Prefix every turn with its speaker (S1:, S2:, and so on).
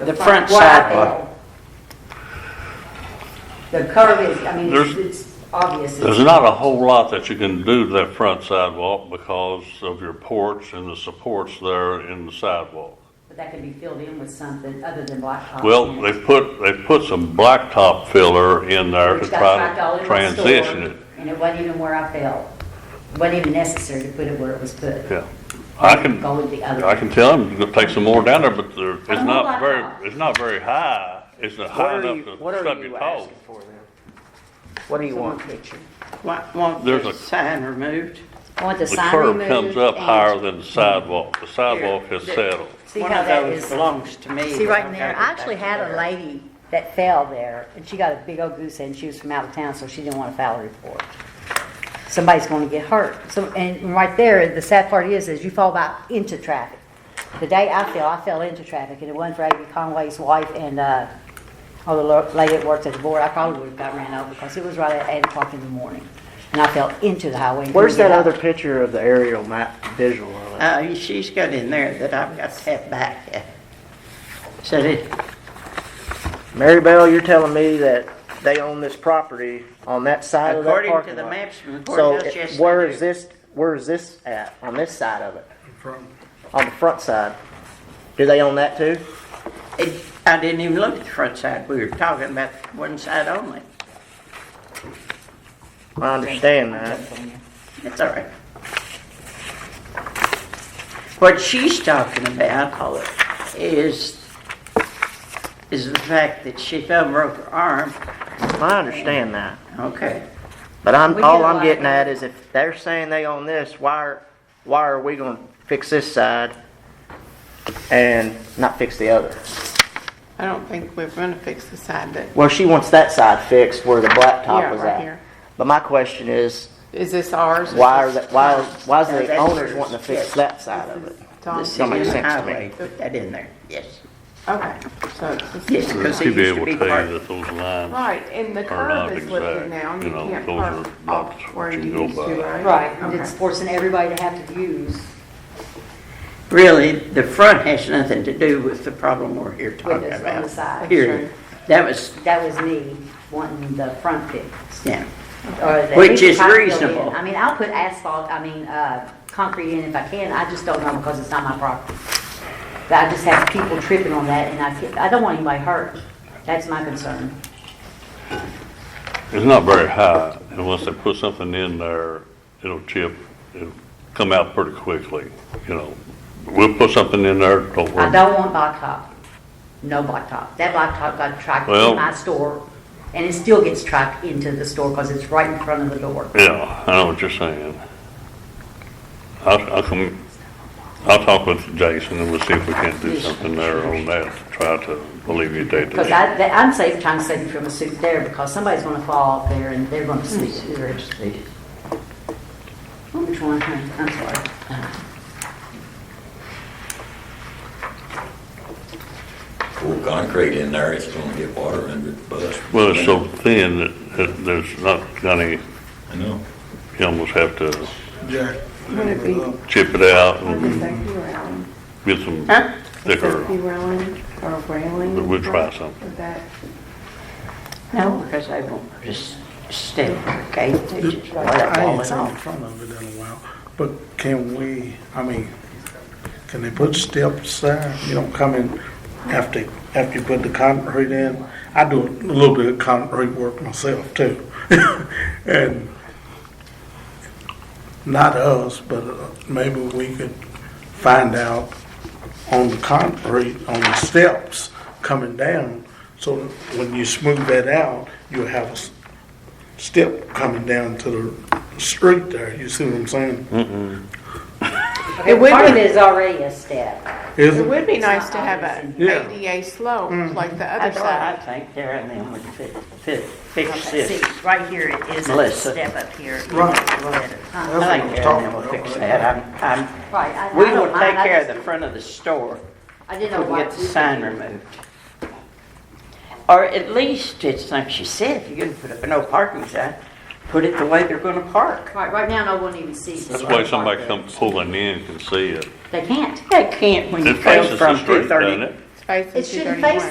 S1: The front
S2: wide
S1: sidewalk.
S2: The curve is, I mean, it's-
S3: There's-
S2: it's obvious.
S3: There's not a whole lot that you can do to that front sidewalk because of your porch and the supports there in the sidewalk.
S2: But that could be filled in with something other than blacktop.
S3: Well,
S2: cement.
S3: they've put, they've put some blacktop filler in there to
S2: Which got
S3: try
S2: packed all over
S3: to
S2: the store,
S3: transition it.
S2: And it wasn't even where I fell. Wasn't even necessary to put it where it was put.
S3: Yeah. I can,
S2: Go with the other.
S3: I can tell them to take some more down there, but there, it's
S2: I'm
S3: not
S2: not
S3: very,
S2: blacktop.
S3: it's not very high. It's not
S4: What
S3: high
S4: are you,
S3: enough
S4: what
S3: to
S4: are
S3: stub
S4: you
S3: your toe.
S4: asking for then? What do you
S2: Someone
S4: want?
S2: picture.
S4: Why- Want
S3: There's
S4: the
S3: a-
S4: sign removed?
S2: I want the
S3: The
S2: sign
S3: curb
S2: removed.
S3: comes up
S2: and-
S3: higher than the sidewalk. The sidewalk has
S2: There.
S3: settled.
S2: See
S4: One
S2: how
S4: of
S2: that
S4: those
S2: is.
S4: belongs to me.
S2: See
S4: but
S2: right
S4: I've
S2: in
S4: gotta
S2: there,
S4: get
S2: I actually
S4: back
S2: had
S4: there.
S2: a lady that fell there, and she got a big old goose egg, and she was from out of town, so she didn't want a foul report. Somebody's gonna get hurt, so, and right there, the sad part is, is you fall back into traffic. The day I fell, I fell into traffic, and it wasn't for Amy Conway's wife and, uh, oh, the lo- lady that worked at the board, I probably would've got ran over, because it was right at eight o'clock in the morning, and I fell into the highway. and
S5: Where's
S2: couldn't
S5: that
S2: get out.
S5: other picture of the aerial map visual of it?
S4: Uh, she's got in there that I've got to have back. uh, Said it,
S5: Mary Bell, you're telling me that they own this property on that side of that parking
S4: according to the
S5: lot?
S4: maps from the
S5: So
S4: courthouse yesterday.
S5: it- where is this, where is this at, on this side of it? On the front side? Do they own that too?
S4: It- I didn't even look at the front side. We were talking about one side only.
S5: I understand that.
S4: That's all right. What she's talking about is, is the fact that she fell and broke her arm.
S5: I understand that.
S4: Okay.
S5: But I'm,
S2: We
S5: all
S2: get
S5: I'm
S2: like-
S5: getting at is if they're saying they own this, why, are- why are we gonna fix this side and not fix the other?
S6: I don't think we're gonna fix the side that,
S5: Well, she wants that side fixed where the blacktop
S6: Yeah,
S5: was
S6: right
S5: at.
S6: here.
S5: But my question is,
S6: is this ours?
S5: why are that, why, why is
S4: No,
S5: the
S4: that's
S5: owners
S4: yours.
S5: wanting to fix
S4: Yes.
S5: that side of it?
S6: Tom,
S4: The
S6: okay,
S5: Don't make
S4: city
S5: sense to me.
S4: highway, put that in there, yes.
S6: so it's the
S4: Yes,
S6: same.
S4: because
S3: He'd
S4: it
S3: be
S4: used to
S3: able
S4: be
S3: to tell you
S4: part,
S3: that those lines
S6: Right, and the
S3: Or not
S6: curve is lifted
S3: exact,
S6: now, and
S3: you
S6: you
S3: know,
S6: can't
S3: those are
S6: park
S3: not
S6: off
S3: what
S6: where
S3: you
S6: you
S3: go
S6: used
S3: by.
S6: to, right?
S2: Right, and
S6: Okay.
S2: it's forcing everybody to have to use
S4: really, the front has nothing to do with the problem we're here talking
S2: windows on the
S4: about.
S2: side.
S4: Here, that was,
S2: That was me wanting the front fixed.
S4: yeah,
S2: or the-
S4: Which is
S2: I feel it.
S4: reasonable.
S2: I mean, I'll put asphalt, I mean, uh, concrete in if I can, I just don't know because it's not my property. But I just have people tripping on that and I, can't- I don't want anybody hurt. That's my concern.
S3: It's not very high, and once they put something in there, it'll chip, it'll come out pretty quickly, you know. We'll put something in there, don't
S2: I
S3: worry.
S2: don't want blacktop. No blacktop. That blacktop got tracked
S3: Well-
S2: in my store and it still gets tracked into the store because it's right in front of the door.
S3: Yeah, I know what you're saying. I'll, I'll come, I'll talk with Jason and we'll see if we can't do something there on that, try to alleviate
S2: Because
S3: that.
S2: I, that- I'm safe, trying to save you from a suit there because somebody's gonna fall off there and they're gonna sleep. They're interested. Which one, I'm sorry.
S7: pour concrete in there, it's gonna get water under the bus.
S3: Well, it's so thin that, that there's not any,
S7: I know.
S3: you almost have to
S8: Jack.
S6: Would it be,
S3: chip it out
S6: would
S3: and
S6: this that be railing?
S3: get some
S4: Huh?
S6: Would
S3: thicker,
S6: that be railing or railing?
S3: But we'll try
S6: Would
S3: something.
S6: that-
S4: no, because I won't just stay there, okay? They just let it
S8: I
S4: fall
S8: ain't
S4: it
S8: seen the
S4: off.
S8: front of it in a while, but can we, I mean, can they put steps there? You don't come in after, after you put the concrete in. I do a little bit of concrete work myself too. And not us, but uh, maybe we could find out on the concrete, on the steps coming down, so that when you smooth that out, you'll have a s- step coming down to the street there, you see what I'm saying?
S2: Okay,
S6: It would
S2: part of
S6: be-
S2: it is already a step.
S8: Is
S6: It
S8: it?
S6: would be
S2: It's not
S6: nice to have a
S2: obvious.
S8: Yeah.
S6: ADA slope like the other
S4: That's what I
S6: side.
S4: think there, and then would fit, fit, fix
S2: Okay,
S4: this.
S2: see, right here it is a
S4: Melissa.
S2: step up here.
S8: Right,
S2: Huh?
S4: I think there, and then we'll fix that. I'm, I'm
S2: Right, I-
S4: We
S2: I
S4: will
S2: don't
S4: take
S2: mind, I
S4: care of
S2: just-
S4: the front of the store.
S2: I didn't know
S4: We'll
S2: why.
S4: get the
S2: we-
S4: sign removed. Or at least, it's like she said, if you're gonna put up a no parking sign, put it the way they're gonna park.
S2: Right, right now, no one even sees.
S3: that's
S2: this
S3: why
S2: part.
S3: somebody come pulling in can see it.
S2: They can't.
S4: They can't when you
S3: It
S4: come
S3: faces the
S4: from
S3: street,
S4: two
S3: doesn't
S4: thirty.
S3: it?
S6: face
S2: It
S6: into
S2: shouldn't
S6: 31.
S2: face